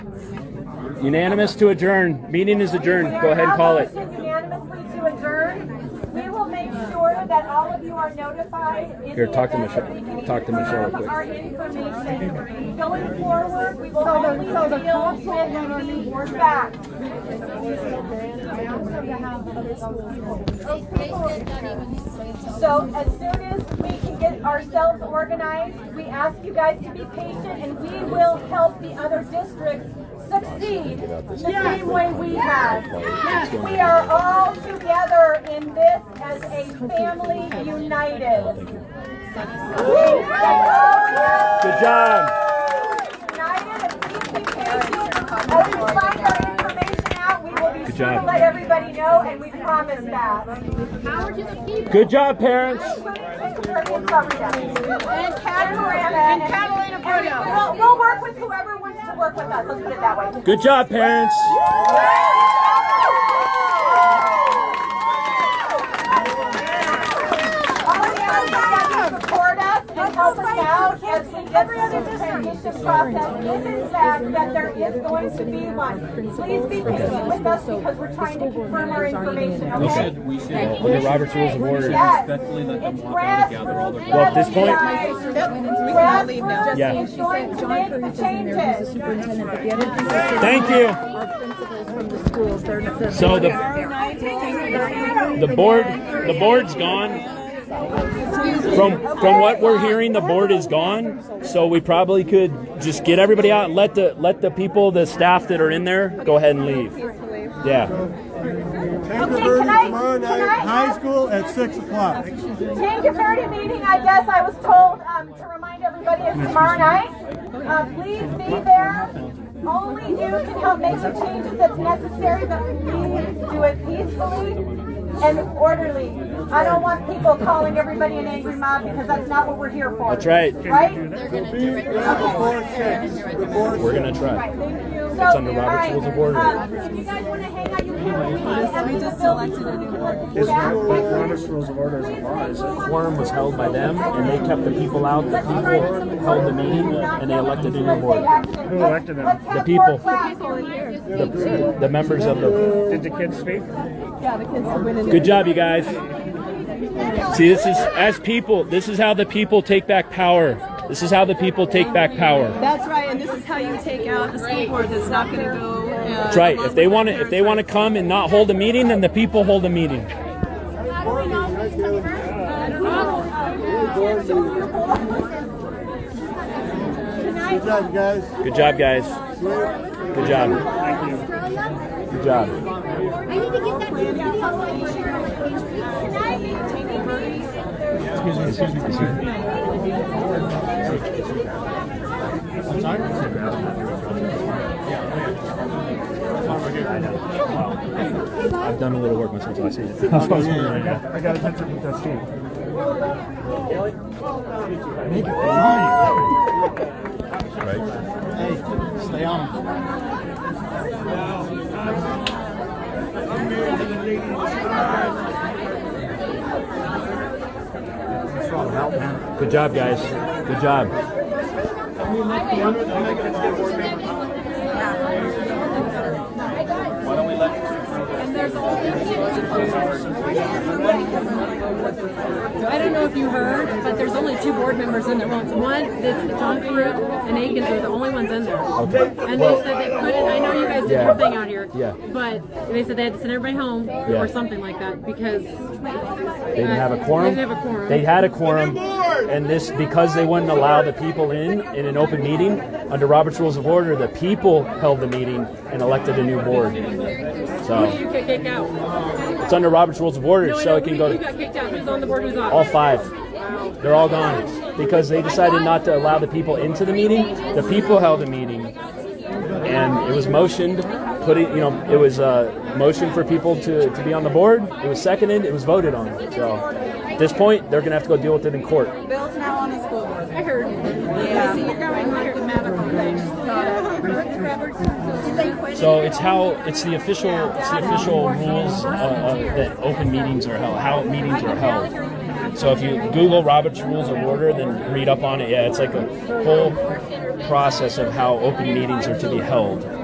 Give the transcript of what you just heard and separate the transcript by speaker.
Speaker 1: Unanimous to adjourn. Meeting is adjourned. Go ahead and call it.
Speaker 2: All motions unanimously to adjourn. We will make sure that all of you are notified. in
Speaker 1: Here,
Speaker 2: the
Speaker 1: talk to
Speaker 2: event that
Speaker 1: Michelle-
Speaker 2: we can
Speaker 1: talk to Michelle real
Speaker 2: confirm
Speaker 1: quick.
Speaker 2: Our information going forward, we will only deal with the facts. So as soon as we can get ourselves organized, we ask you guys to be patient and we will help the other districts succeed the same way we have. We are all together in this as a family united. Woo! Let's all
Speaker 1: Good job.
Speaker 2: united and keep being patient. As we find our information out, we will be
Speaker 1: Good
Speaker 2: sure to
Speaker 1: job.
Speaker 2: let everybody know and we promise that.
Speaker 1: Good job, parents.
Speaker 2: And Kat Moran and Catalina Bruno. We'll, we'll work with whoever wants to work with us. Let's put it that way.
Speaker 1: Good job, parents.
Speaker 2: All of you that can support us and help us out as we get through this transition process if in fact that there is going to be one. Please be patient with us because we're trying to confirm our information, okay?
Speaker 3: We should
Speaker 1: Under Robert's Rules of Order.
Speaker 2: Yes.
Speaker 3: respectfully let them
Speaker 2: It's
Speaker 3: walk out and
Speaker 2: grassroots,
Speaker 3: gather all their.
Speaker 1: Well, at this point-
Speaker 2: Grassroots
Speaker 1: Yeah.
Speaker 2: is going to make the changes.
Speaker 1: Thank you. So the the board the board's gone. From from what we're hearing, the board is gone. So we probably could just get everybody out and let the let the people, the staff that are in there, go ahead and leave. Yeah.
Speaker 2: can I-
Speaker 4: Tankerville tomorrow
Speaker 2: can I-
Speaker 4: night, high school at six o'clock.
Speaker 2: Tank Verde meeting, I guess I was told um, to remind everybody is tomorrow night. Uh, please be there. Only you can help make the changes that's necessary, but please do it peacefully and orderly. I don't want people calling everybody an angry mob because that's not what we're here for.
Speaker 1: That's right.
Speaker 2: Right?
Speaker 4: Be there before six. Before
Speaker 1: We're gonna try.
Speaker 2: Right, thank you.
Speaker 1: That's under Robert's Rules of Order.
Speaker 2: Um, if you guys want to hang out, you can. We just elected a new board. Robert's Rules of Order is a law,
Speaker 1: quorum was held by them, and they kept the people out. The people held the meeting, and they elected a new board.
Speaker 2: Who elected them? The
Speaker 1: people.
Speaker 2: people.
Speaker 1: The, the members of the.
Speaker 5: Did the kids speak?
Speaker 1: Good job, you guys. See, this is as people. This is how the people take back power. This is how the people take back power.
Speaker 6: That's right, and this is how you take out the school board that's not going to go.
Speaker 1: That's right. If they want to, if they want to come and not hold a meeting, then the people hold a meeting.
Speaker 2: Oh,
Speaker 4: Good job, guys.
Speaker 1: Good job, guys. Good job.
Speaker 7: Australia.
Speaker 1: Good job.
Speaker 7: I need to get that video so I can share it with you.
Speaker 1: I've done a little work myself, so I see it.
Speaker 5: I got a picture with that team.
Speaker 4: Stay on.
Speaker 1: Good job, guys. Good job.
Speaker 6: I don't know if you heard, but there's only two board members in there. Well, one, that's Tom Pruitt and Akins are the only ones in there. And they said they couldn't, I know you guys did
Speaker 1: Yeah.
Speaker 6: your thing out here.
Speaker 1: Yeah.
Speaker 6: But they said they had to send everybody home
Speaker 1: Yeah.
Speaker 6: or something like that because.
Speaker 1: They didn't have a quorum.
Speaker 6: They didn't have a quorum.
Speaker 1: They had a quorum, and this because they wouldn't allow the people in in an open meeting under Robert's Rules of Order. The people held the meeting and elected a new board. So
Speaker 6: You could kick out.
Speaker 1: it's under Robert's Rules of Order,
Speaker 6: No, I
Speaker 1: so
Speaker 6: know,
Speaker 1: it can
Speaker 6: who-
Speaker 1: go
Speaker 6: who
Speaker 1: to
Speaker 6: got kicked out, who's on the board, who's off.
Speaker 1: all five. They're all gone because they decided not to allow the people into the meeting. The people held the meeting, and it was motioned. Put it, you know, it was a motion for people to, to be on the board. It was seconded. It was voted on. So at this point, they're gonna have to go deal with it in court.
Speaker 6: Bill's now on the school board. I heard. Yeah. you're going like the medical
Speaker 1: So it's how it's the official it's the official rules uh, uh, that open meetings are held, how meetings are held. So if you Google Robert's Rules of Order, then read up on it. Yeah, it's like a whole process of how open meetings are to be held.